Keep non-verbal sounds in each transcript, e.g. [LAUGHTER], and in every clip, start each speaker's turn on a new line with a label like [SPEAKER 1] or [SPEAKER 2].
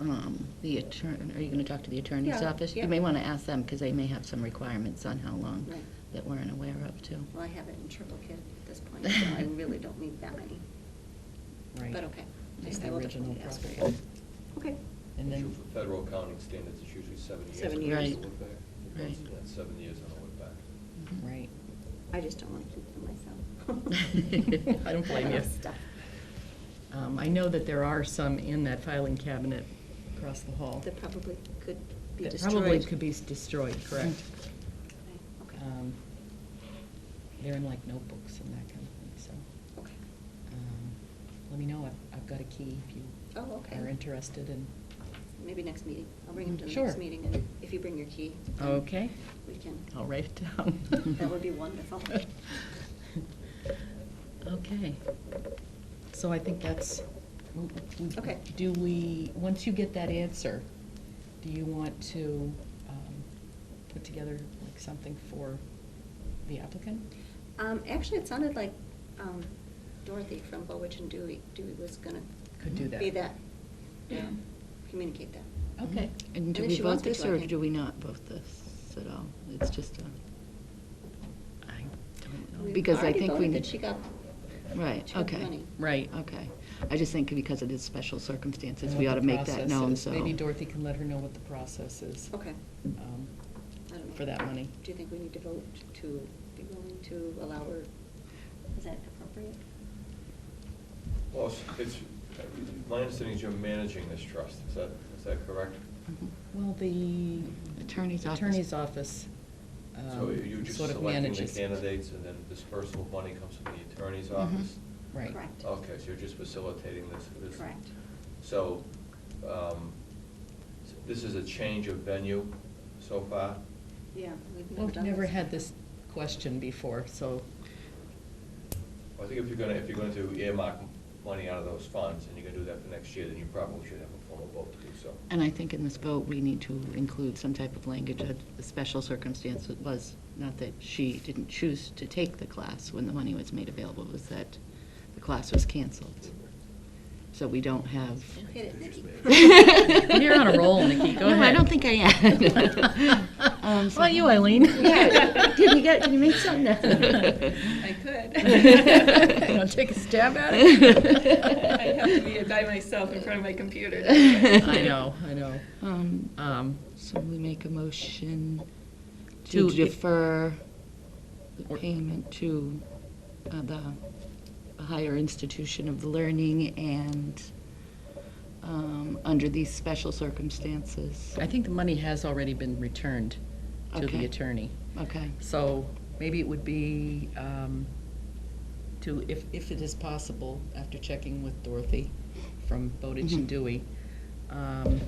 [SPEAKER 1] um, the attorney, are you going to talk to the attorney's
[SPEAKER 2] Yeah,
[SPEAKER 1] office?
[SPEAKER 2] yeah.
[SPEAKER 1] You may want to ask them, because they may have some requirements on how long
[SPEAKER 2] Right.
[SPEAKER 1] that we're unaware of, too.
[SPEAKER 2] Well, I have it in triplicate at this point, so
[SPEAKER 3] [LAUGHS]
[SPEAKER 2] I really don't need that many.
[SPEAKER 3] Right.
[SPEAKER 2] But okay.
[SPEAKER 3] It's
[SPEAKER 2] I- I
[SPEAKER 3] the
[SPEAKER 2] will
[SPEAKER 3] original
[SPEAKER 2] definitely ask for
[SPEAKER 3] property.
[SPEAKER 2] that. Okay.
[SPEAKER 3] And
[SPEAKER 4] Usually
[SPEAKER 3] then,
[SPEAKER 4] Oh, for federal accounting standards, it's usually seven years.
[SPEAKER 2] Seven
[SPEAKER 4] when you
[SPEAKER 1] years.
[SPEAKER 4] have to look back.
[SPEAKER 1] Right.
[SPEAKER 4] Yeah, it's Seven years on the way back.
[SPEAKER 1] Mhm.
[SPEAKER 3] right.
[SPEAKER 2] I just don't want to keep them myself.
[SPEAKER 3] [LAUGHS] I don't blame
[SPEAKER 2] love
[SPEAKER 3] you.
[SPEAKER 2] stuff.
[SPEAKER 3] Um, I know that there are some in that filing cabinet across the hall.
[SPEAKER 2] That probably could be
[SPEAKER 3] that
[SPEAKER 2] destroyed. Mm.
[SPEAKER 3] Probably could be destroyed, correct.
[SPEAKER 2] Right, Okay,
[SPEAKER 3] Um, They're in like notebooks and that kind of thing, so.
[SPEAKER 2] okay.
[SPEAKER 3] um, Let me know, I've, I've got a key if you
[SPEAKER 2] Oh, okay.
[SPEAKER 3] are interested in.
[SPEAKER 2] Maybe next meeting. I'll bring him to the
[SPEAKER 3] Sure.
[SPEAKER 2] next meeting, and if you bring your key. then
[SPEAKER 3] Okay.
[SPEAKER 2] We can.
[SPEAKER 3] I'll write it down.
[SPEAKER 2] [LAUGHS] That would be wonderful.
[SPEAKER 3] Okay. So I think that's.
[SPEAKER 2] Okay.
[SPEAKER 3] Do we, once you get that answer, do you want to um, put together like something for the applicant?
[SPEAKER 2] Um, Actually, it sounded like um, Dorothy from Bowwitch and Dewey, Dewey was gonna.
[SPEAKER 3] Could do that.
[SPEAKER 2] Be that, yeah, communicate that.
[SPEAKER 3] Okay.
[SPEAKER 1] And do
[SPEAKER 2] if
[SPEAKER 1] we
[SPEAKER 2] she wants
[SPEAKER 1] vote
[SPEAKER 2] me
[SPEAKER 1] this,
[SPEAKER 2] to, I
[SPEAKER 1] or
[SPEAKER 2] can-
[SPEAKER 1] do we not vote this at all? It's just a, I don't know,
[SPEAKER 2] We've
[SPEAKER 1] because I
[SPEAKER 2] already
[SPEAKER 1] think we.
[SPEAKER 2] voted
[SPEAKER 1] need.
[SPEAKER 2] that she got,
[SPEAKER 1] Right,
[SPEAKER 2] she got the
[SPEAKER 1] okay,
[SPEAKER 2] money.
[SPEAKER 3] Right.
[SPEAKER 1] okay. I just think because it is special circumstances,
[SPEAKER 3] And
[SPEAKER 1] we
[SPEAKER 3] what
[SPEAKER 1] ought to
[SPEAKER 3] the
[SPEAKER 1] make that
[SPEAKER 3] process
[SPEAKER 1] known,
[SPEAKER 3] is.
[SPEAKER 1] so.
[SPEAKER 3] Maybe Dorothy can let her know what the process is.
[SPEAKER 2] Okay.
[SPEAKER 3] um,
[SPEAKER 2] I don't know.
[SPEAKER 3] For that money.
[SPEAKER 2] Do you think we need to vote to be willing to allow her, is that appropriate?
[SPEAKER 4] Well, it's- it's, my understanding is you're managing this trust, is that, is that correct?
[SPEAKER 1] Mhm.
[SPEAKER 3] Well, the.
[SPEAKER 1] Attorney's office.
[SPEAKER 3] Attorney's office.
[SPEAKER 4] So
[SPEAKER 3] um,
[SPEAKER 4] you're just
[SPEAKER 3] sort of
[SPEAKER 4] selecting the
[SPEAKER 3] manages- Mm-hmm.
[SPEAKER 4] candidates and then dispersal of money comes from the attorney's office?
[SPEAKER 3] Right.
[SPEAKER 2] Correct.
[SPEAKER 4] Okay, so you're just facilitating this. this-
[SPEAKER 2] Correct.
[SPEAKER 4] So, um, s- this is a change of venue so far?
[SPEAKER 2] Yeah. we've
[SPEAKER 3] We've
[SPEAKER 2] done
[SPEAKER 3] never had this question before, so,
[SPEAKER 4] I think if you're gonna, if you're gonna do earmark money out of those funds and you're gonna do that for next year, then you probably should have a formal vote to do so.
[SPEAKER 1] And I think in this vote, we need to include some type of language that the special circumstance was not that she didn't choose to take the class when the money was made available, it was that the class was canceled. So we don't have.
[SPEAKER 2] Hit it, Nikki.
[SPEAKER 3] [LAUGHS] You're on a roll, Nikki. Go
[SPEAKER 1] No, I
[SPEAKER 3] ahead.
[SPEAKER 1] don't think I
[SPEAKER 3] [LAUGHS]
[SPEAKER 1] am. Um, so-
[SPEAKER 3] Well, you, Eileen.
[SPEAKER 1] [LAUGHS] Yeah. Did you get, did you make something?
[SPEAKER 3] [LAUGHS]
[SPEAKER 5] I
[SPEAKER 3] You
[SPEAKER 1] [LAUGHS]
[SPEAKER 5] could.
[SPEAKER 3] wanna take a stab at
[SPEAKER 5] [LAUGHS]
[SPEAKER 2] [LAUGHS]
[SPEAKER 3] it?
[SPEAKER 5] I'd have to be by myself in front of my
[SPEAKER 1] [LAUGHS]
[SPEAKER 5] computer.
[SPEAKER 3] I know, I know.
[SPEAKER 1] Um,
[SPEAKER 3] Um,
[SPEAKER 1] So we make a motion to
[SPEAKER 3] To i-
[SPEAKER 1] defer the
[SPEAKER 3] Or-
[SPEAKER 1] payment to uh, the higher institution of learning and um, under these special circumstances.
[SPEAKER 3] I think the money has already been returned to the
[SPEAKER 1] Okay.
[SPEAKER 3] attorney.
[SPEAKER 1] Okay,
[SPEAKER 3] So maybe it would be um, to, if, if it is possible, after checking with Dorothy from Bowditch and
[SPEAKER 1] Mhm.
[SPEAKER 3] Dewey, um,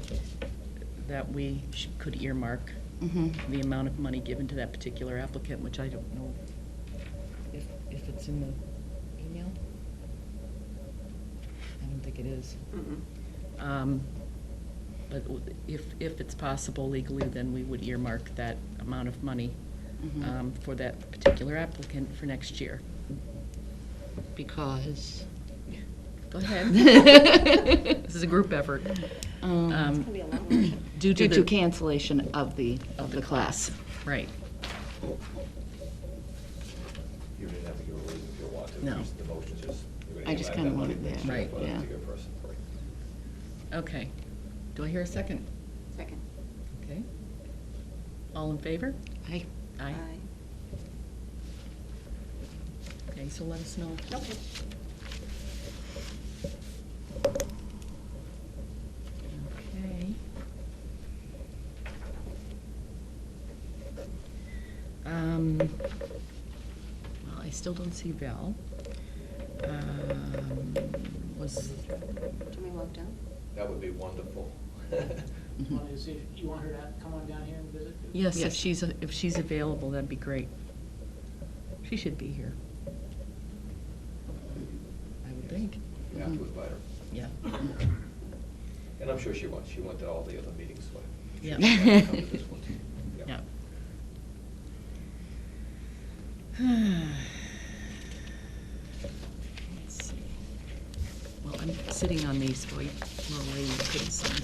[SPEAKER 3] that we sh- could earmark
[SPEAKER 1] Mhm.
[SPEAKER 3] the amount of money given to that particular applicant, which I don't know if, if it's in the email. I don't think it is.
[SPEAKER 2] Mm-mm.
[SPEAKER 3] Um, But w- if, if it's possible legally, then we would earmark that amount of money
[SPEAKER 1] Mhm.
[SPEAKER 3] um, for that particular applicant for next year.
[SPEAKER 1] because.
[SPEAKER 3] Go [LAUGHS] ahead. This
[SPEAKER 1] This
[SPEAKER 3] is a group effort.
[SPEAKER 1] Due
[SPEAKER 2] It's gonna be a long one.
[SPEAKER 3] Um, Due to
[SPEAKER 1] um, to
[SPEAKER 3] the,
[SPEAKER 1] cancellation of the, of the class.
[SPEAKER 3] right.
[SPEAKER 4] You don't even have to give a reason if you want to.
[SPEAKER 3] No.
[SPEAKER 4] Just The motion's just. you're gonna
[SPEAKER 1] I just
[SPEAKER 4] earmark
[SPEAKER 1] kinda
[SPEAKER 4] that money
[SPEAKER 1] wanted
[SPEAKER 4] next
[SPEAKER 1] that.
[SPEAKER 4] year
[SPEAKER 3] Right,
[SPEAKER 4] for that
[SPEAKER 1] yeah.
[SPEAKER 4] particular person, right.
[SPEAKER 3] Okay. Do I hear a second?
[SPEAKER 2] Second.
[SPEAKER 3] Okay. All in favor?
[SPEAKER 1] I,
[SPEAKER 3] Aye.
[SPEAKER 2] Aye.
[SPEAKER 3] Okay, so let us know.
[SPEAKER 2] Okay.
[SPEAKER 3] Okay. Um, well, I still don't see Val. Um, was,
[SPEAKER 2] Do we walk down?
[SPEAKER 4] That would be wonderful. [LAUGHS]
[SPEAKER 6] One is if you want her to come on down here and visit?
[SPEAKER 3] yes, if
[SPEAKER 1] Yes.
[SPEAKER 3] she's, if she's available, that'd be great. She should be here. I would think,
[SPEAKER 4] You have to invite her.
[SPEAKER 3] yeah.
[SPEAKER 4] And I'm sure she wants, she went to all the other meetings, so.
[SPEAKER 3] Yeah.
[SPEAKER 4] she might come to this one
[SPEAKER 1] [LAUGHS]
[SPEAKER 4] too.
[SPEAKER 3] [SIGHS] Yeah. Let's see. Well, I'm sitting on these, while you- while Elaine couldn't sign